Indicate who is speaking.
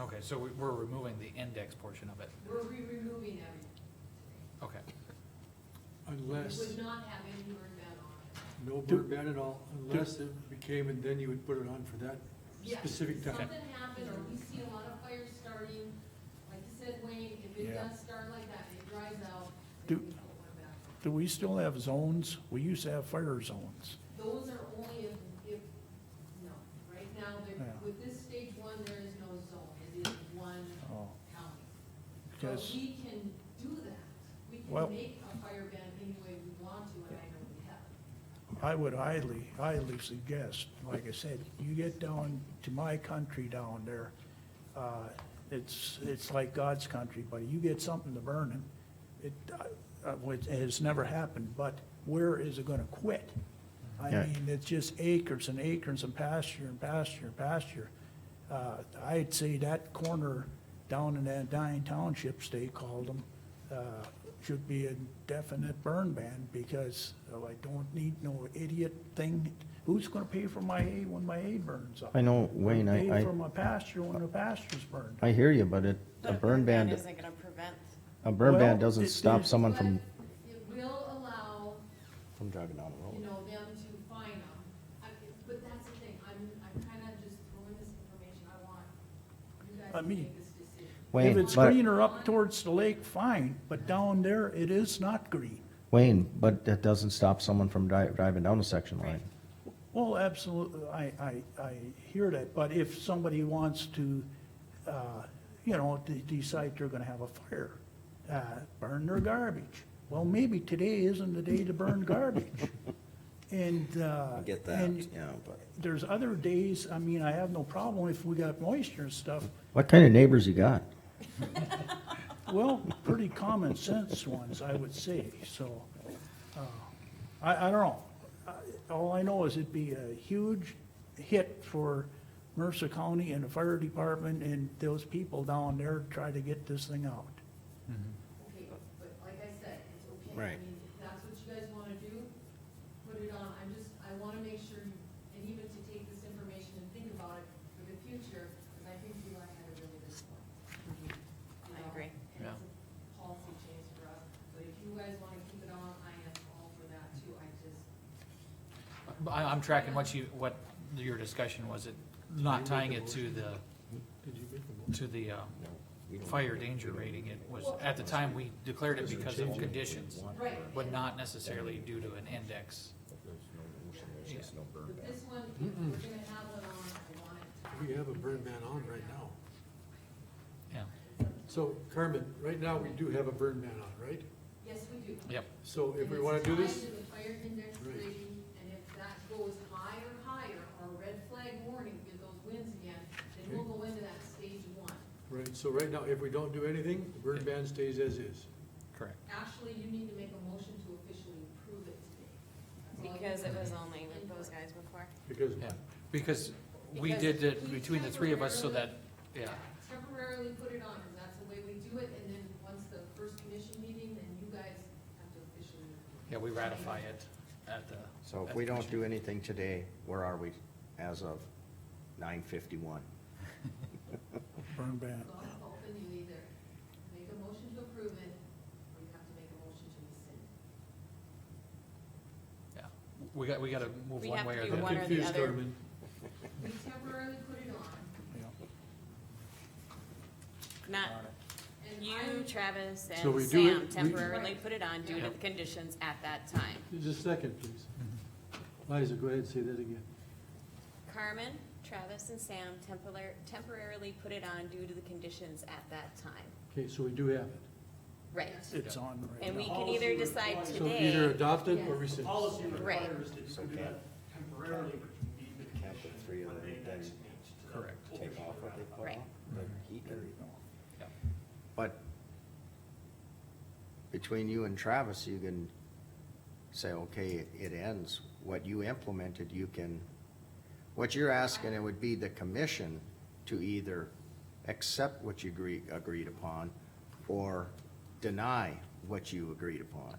Speaker 1: Okay, so we- we're removing the index portion of it,
Speaker 2: We're re-removing everything.
Speaker 1: okay.
Speaker 2: We
Speaker 3: Unless,
Speaker 2: would not have any burn ban on it.
Speaker 3: no burn ban at all, unless it became, and then you would put it on for that
Speaker 2: Yes,
Speaker 3: specific
Speaker 2: if
Speaker 3: time.
Speaker 2: something happened, or we see a lot of fires starting, like you said, Wayne, if it
Speaker 4: Yeah.
Speaker 2: does start like that, and it dries out,
Speaker 4: Do-
Speaker 2: then we put one back.
Speaker 4: Do we still have zones? We used to have fire zones.
Speaker 2: Those are only if, if, no, right now, there,
Speaker 4: Yeah.
Speaker 2: with this stage one, there is no zone, it is one
Speaker 4: Oh,
Speaker 2: county. So
Speaker 4: Because,
Speaker 2: we can do that, we
Speaker 4: Well-
Speaker 2: can make a fire ban any way we want to, and I know we have.
Speaker 4: I would highly, highly suggest, like I said, you get down to my country down there, uh, it's, it's like God's country, but you get something to burn and it, uh, uh, which has never happened, but where is it gonna quit? I
Speaker 5: Yeah.
Speaker 4: mean, it's just acres and acres and pasture and pasture and pasture. Uh, I'd say that corner down in that dying townships, they called them, uh, should be a definite burn ban because oh, I don't need no idiot thing. Who's gonna pay for my hay when my hay burns up?
Speaker 5: I know, Wayne, I- I-
Speaker 4: Pay for my pasture when the pasture's burned.
Speaker 5: I hear you, but it, a
Speaker 6: But
Speaker 5: burn ban,
Speaker 6: Isn't gonna prevent,
Speaker 5: a burn
Speaker 4: Well,
Speaker 5: ban
Speaker 4: it-
Speaker 5: doesn't stop
Speaker 4: it-
Speaker 5: someone from,
Speaker 2: But It will allow
Speaker 5: from driving down the
Speaker 2: you
Speaker 5: road.
Speaker 2: know, them to find them. I, but that's the thing, I'm, I'm kind of just throwing this information, I want you guys
Speaker 4: I
Speaker 2: to
Speaker 4: mean,
Speaker 2: make this decision.
Speaker 4: If
Speaker 5: Wayne,
Speaker 4: it's
Speaker 5: but,
Speaker 4: greener up towards the lake, fine, but down there, it is not green.
Speaker 5: Wayne, but that doesn't stop someone from dri- driving down a section
Speaker 6: Right.
Speaker 5: line.
Speaker 4: Well, absolutely, I, I, I hear that, but if somebody wants to, uh, you know, de- decide they're gonna have a fire, uh, burn their garbage. Well, maybe today isn't the day to burn garbage. And, uh. and
Speaker 5: yeah, but.
Speaker 4: There's other days, I mean, I have no problem if we got moisture and stuff,
Speaker 5: What kind of neighbors you got?
Speaker 4: Well, pretty common sense ones, I would say, so, uh, I, I don't know. I- All I know is it'd be a huge hit for Mercer County and the fire department and those people down there try to get this thing out.
Speaker 2: Okay, but like I said, it's okay.
Speaker 5: Right.
Speaker 2: I mean, if that's what you guys want to do, put it on, I'm just, I want to make sure, you- and even to take this information and think about it for the future, because I think you and I had a really good one. You
Speaker 6: I
Speaker 2: know,
Speaker 6: agree.
Speaker 2: And it's a policy change for us, but if you guys want to keep it on, I am all for that too, I just,
Speaker 1: But I, I'm tracking what you, what your discussion was, it, not tying it to the,
Speaker 3: Did you make the
Speaker 1: to
Speaker 3: motion?
Speaker 1: the, um, fire danger rating, it was, at the time, we declared it because of conditions,
Speaker 2: right.
Speaker 1: but
Speaker 2: and-
Speaker 1: not necessarily due to an index.
Speaker 2: But this one, if we're gonna have one on, I want it to
Speaker 3: We have a burn ban on right now.
Speaker 1: Yeah,
Speaker 3: So Carmen, right now, we do have a burn ban on, right?
Speaker 2: Yes, we do.
Speaker 1: yep,
Speaker 3: So if
Speaker 2: And
Speaker 3: we
Speaker 2: it's
Speaker 3: wanna do
Speaker 2: tied
Speaker 3: this,
Speaker 2: to the fire index
Speaker 3: Right.
Speaker 2: rating, and if that goes higher, higher, or red flag warning, get those winds again, then we'll go into that stage one.
Speaker 3: right, so right now, if we don't do anything, the burn ban stays as is.
Speaker 1: correct.
Speaker 2: Actually, you need to make a motion to officially approve it today. That's all you
Speaker 6: because it
Speaker 2: can
Speaker 6: was
Speaker 2: do.
Speaker 6: only with those guys before.
Speaker 3: Because,
Speaker 1: Yeah, because we did it between the three of us so that, yeah,
Speaker 2: Temporarily put it on, and that's the way we do it, and then once the first commission meeting, then you guys have to officially.
Speaker 1: yeah, we ratify it at the.
Speaker 7: So if we don't do anything today, where are we as of nine fifty-one?
Speaker 4: Burn ban.
Speaker 2: It's not open, you either make a motion to approve it, or you have to make a motion to rescind.
Speaker 1: Yeah, we got, we gotta move
Speaker 6: We
Speaker 1: one
Speaker 6: have
Speaker 1: way
Speaker 6: to
Speaker 1: or
Speaker 6: do
Speaker 1: the
Speaker 3: I'm
Speaker 6: one
Speaker 1: other.
Speaker 6: or the
Speaker 3: confused,
Speaker 6: other.
Speaker 3: Carmen.
Speaker 2: We temporarily put it on,
Speaker 4: yeah.
Speaker 6: Not
Speaker 2: and
Speaker 6: you,
Speaker 2: I,
Speaker 6: Travis,
Speaker 3: So
Speaker 6: and
Speaker 3: we do it-
Speaker 6: Sam
Speaker 3: we-
Speaker 6: temporarily put it on due to
Speaker 1: Yeah.
Speaker 6: the conditions at that time.
Speaker 3: Just a second, please. Liza, go ahead and say that again.
Speaker 6: Carmen, Travis, and Sam temporar- temporarily put it on due to the conditions at that time.
Speaker 3: Okay, so we do have it.
Speaker 6: Right.
Speaker 4: It's on right
Speaker 6: And
Speaker 4: now.
Speaker 6: we can either decide
Speaker 3: So either
Speaker 6: today,
Speaker 3: adopt it or
Speaker 2: Yes.
Speaker 3: rescind.
Speaker 8: Policy
Speaker 6: Right.
Speaker 8: requires that you can do that temporarily, but you need the
Speaker 7: Count the
Speaker 8: condition
Speaker 7: three of
Speaker 8: when
Speaker 7: them,
Speaker 8: they
Speaker 7: then
Speaker 8: next meet to
Speaker 1: Correct.
Speaker 7: Take off what they put
Speaker 6: Right.
Speaker 7: off, the heat and-
Speaker 1: Yeah.
Speaker 7: But between you and Travis, you can say, okay, it ends. What you implemented, you can, what you're asking, it would be the commission to either accept what you agree, agreed upon or deny what you agreed upon.